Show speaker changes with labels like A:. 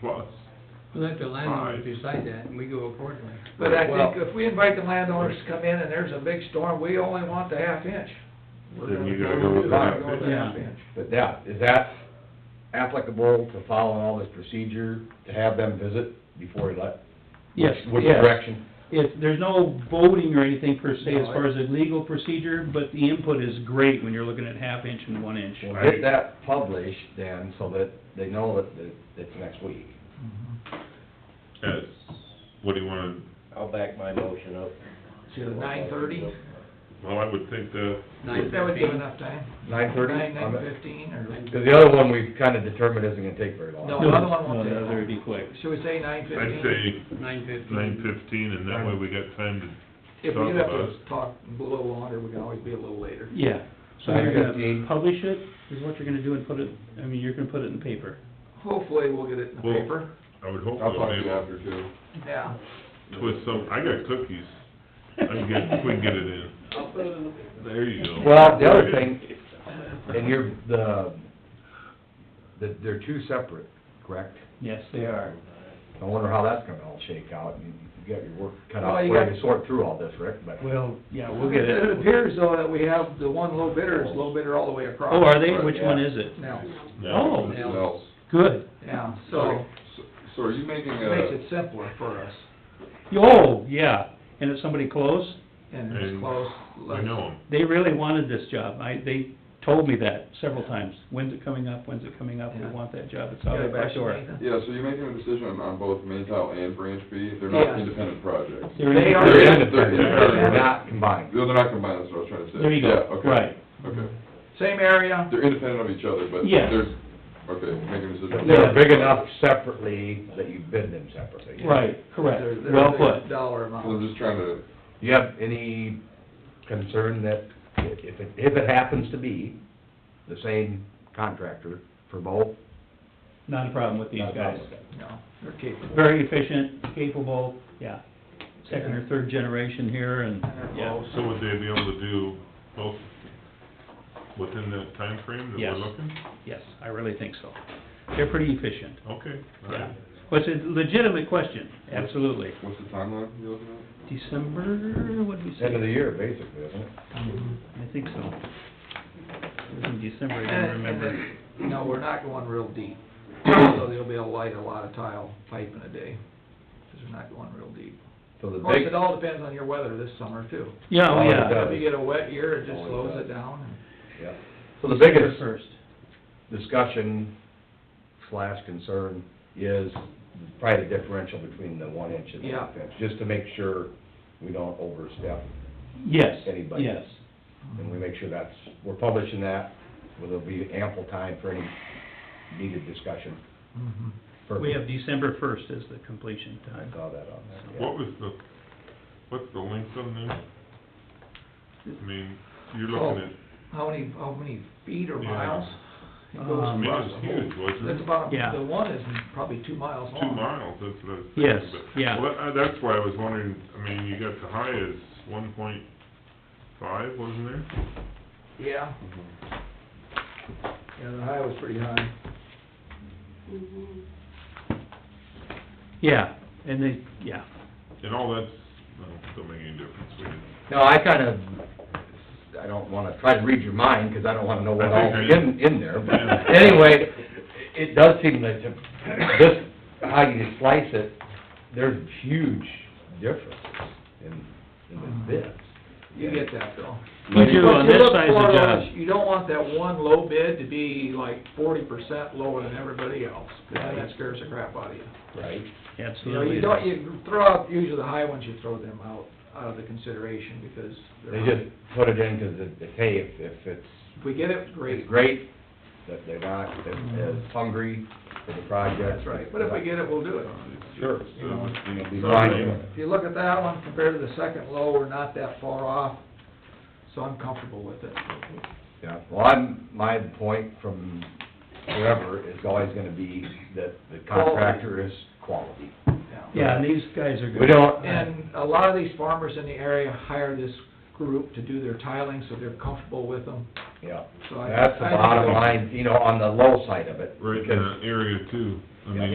A: plus.
B: We let the landlord
A: Right.
B: decide that, and we go accordingly.
C: But I
D: Well-
C: think if we invite the landowners to come in and there's a big storm, we only want the half inch. We're
A: Then
C: gonna
A: you gotta go with the
C: we're gonna
A: half
C: go with the
B: inch.
C: half
B: Yeah.
C: inch.
D: But now, is that applicable to following all this procedure, to have them visit before he let?
E: Yes,
D: Which
E: yes.
D: direction?
E: If, there's no voting or anything per se as
C: No,
E: far as a legal procedure, but the input is great when you're looking at half inch and one inch.
D: We'll get that published then, so that they know that, that it's next week.
A: Yes, what do you wanna,
F: I'll back my motion up.
C: To nine thirty?
A: well, I would think the,
B: Nine
C: That would give
B: fifteen,
C: enough time.
D: Nine thirty?
C: Nine, nine fifteen, or,
D: Cause the other one we've kinda determined isn't gonna take very long.
C: No. the other one won't
E: No,
C: take
E: the other
C: long.
E: would be quick.
C: should we say nine
A: I'd
C: fifteen?
A: say
B: nine fifteen.
A: nine fifteen, and that way we got time to,
C: If we
A: talk
C: have
A: about
C: to
A: it.
C: talk below longer, we can always be a little later.
E: Yeah, so you're gonna
D: 9:15.
E: publish it, is what you're gonna do and put it, I mean, you're gonna put it in the paper.
C: Hopefully, we'll get it in the
A: Well-
C: paper.
A: I would hope
D: I'll
A: we'll
D: talk
A: be
D: to you
A: able
D: after too.
C: Yeah.
A: to twist some, I got cookies. I'm good, we can get it in. There you go.
D: Well, the other thing, and you're, the, the, they're two separate, correct?
E: Yes, they are.
D: I wonder how that's gonna all shake out, and you got your work cut
C: Well,
D: out,
C: you
D: for
C: got-
D: you to sort through all this, Rick, but.
E: Well, yeah, we'll get
C: It
E: it.
C: appears though that we have the one low bidder is low bidder all the way across.
E: Oh, are they? Which one is it?
C: Now,
A: Now,
E: Oh.
A: this is-
B: Now.
E: Good.
C: yeah, so
G: So are you making
C: makes
G: a,
C: it simpler for us
E: Oh, yeah, and it's somebody close?
C: and it's
A: And
C: close.
A: I know 'em.
E: They really wanted this job. I, they told me that several times. When's it coming up? When's it coming up? We
C: Yeah.
E: want that job. It's
C: Got
E: out
C: it
E: of
C: back
E: our
C: to
E: door.
C: Nathan?
G: yeah, so you're making a decision on- on both main tile and branch B? They're
C: Yeah.
G: not independent projects?
E: They're
C: They
E: in-
C: are-
D: They're
G: independent.
D: They're not combined.
G: No, They're not combined, that's what I was trying to say.
E: There you go.
G: Yeah, okay.
E: Right.
G: Okay.
C: Same area,
G: They're independent of each other, but
E: Yes.
G: there's, okay, making a decision.
D: They're big enough separately that you bid them separately.
E: Right,
C: they're,
E: correct.
C: they're
E: Well
C: a
E: put.
C: dollar
G: So I'm
C: amount.
G: just trying to,
D: Do you have any concern that if it, if it happens to be the same contractor for both?
E: Not a problem with these
D: Not a
E: guys.
D: problem.
C: No, they're capable.
E: Very efficient, capable, yeah. Second or third generation here and,
C: And they're
E: yeah.
C: close.
A: So would they be able to do both within that time frame that
E: Yes.
A: we're looking?
E: Yes, I really think so. They're pretty efficient,
A: Okay, all
E: yeah.
A: right.
E: Well, it's a legitimate question, absolutely.
G: what's the timeline you're looking at?
E: December, what did we say?
D: End of the year, basically, isn't it?
E: I think so. It was in December, I don't
C: And, and
E: remember.
C: then, no, we're not going real deep, so they'll be able to light a lot of tile pipe in a day, because we're not going real deep.
D: So the
C: Of course,
D: big,
C: it all depends on your weather this summer too.
E: Yeah, oh,
D: Oh,
E: yeah.
D: it does.
C: If you get a wet year, it just
D: Always
C: slows
D: does.
C: it down and
D: yeah. So the
E: December
D: biggest
E: First.
D: discussion slash concern is probably the differential between the one inch and the half inch. Just to make sure we don't overstep
E: Yes,
D: Anybody.
E: yes.
D: And we make sure that's, we're publishing that, where there'll be ample time for any needed discussion.
C: mm-hmm.
D: for-
E: We have December first as the completion
D: I
E: time.
D: saw that on there, yeah.
A: What was the, what's the length on there? I mean, you're looking at,
E: Oh.
C: How many, how many feet or
A: Yeah.
C: miles? It goes
A: I
E: Um,
A: mean,
C: across the
A: it's
C: whole-
A: huge, wasn't
C: That's
A: it?
C: about,
E: Yeah.
C: the one is probably two miles
A: Two
C: long.
A: miles, that's what I was thinking.
E: Yes,
A: but-
E: yeah.
A: Well, that- that's why I was wondering, I mean, you got the high as one point five, wasn't there?
C: Yeah. Yeah, the high was pretty high.
E: Yeah, and they, yeah,
A: And all that's, no, don't make any difference, we didn't.
D: No, I kind of, I don't want to try to read your mind, because I don't want to know what
A: I
D: all
A: think
D: is
A: I-
D: in, in there,
A: Yeah.
D: but anyway, it does seem that to- this, how you slice it, there's huge differences in, in
E: Mm-hmm.
D: the bids.
C: You get that though.
E: You do
C: What
E: on
C: you
E: this
C: look
E: size of
C: for
E: job.
C: is You don't want that one low bid to be like forty percent lower than everybody else, 'cause then that scares the crap out of you.
D: Right.
C: You know,
E: absolutely.
C: you don't, you throw out, usually the high ones, you throw them out, out of the consideration because
D: They
C: they're not.
D: just put it in because it's, hey, if, if it's
C: If we get it, great.
D: It's great that they're not as hungry for the project.
C: That's right, but if we get it, we'll do it.
D: Sure.
C: You know,
D: It'll be fine.
C: If you look at that one compared to the second low, we're not that far off, so I'm comfortable with it.
D: Yeah, well, I'm, my point from forever is always gonna be that the contractor is quality.
E: Yeah, and these guys are good.
D: We don't,
C: And a lot of these farmers in the area hire this group to do their tiling, so they're comfortable with them.
D: yeah,
C: So I-
D: that's the
C: I think
D: bottom
C: it'll-
D: line, you know, on the low side of it.
A: Right in
D: because-
A: that area too, I
D: Yeah.
A: mean,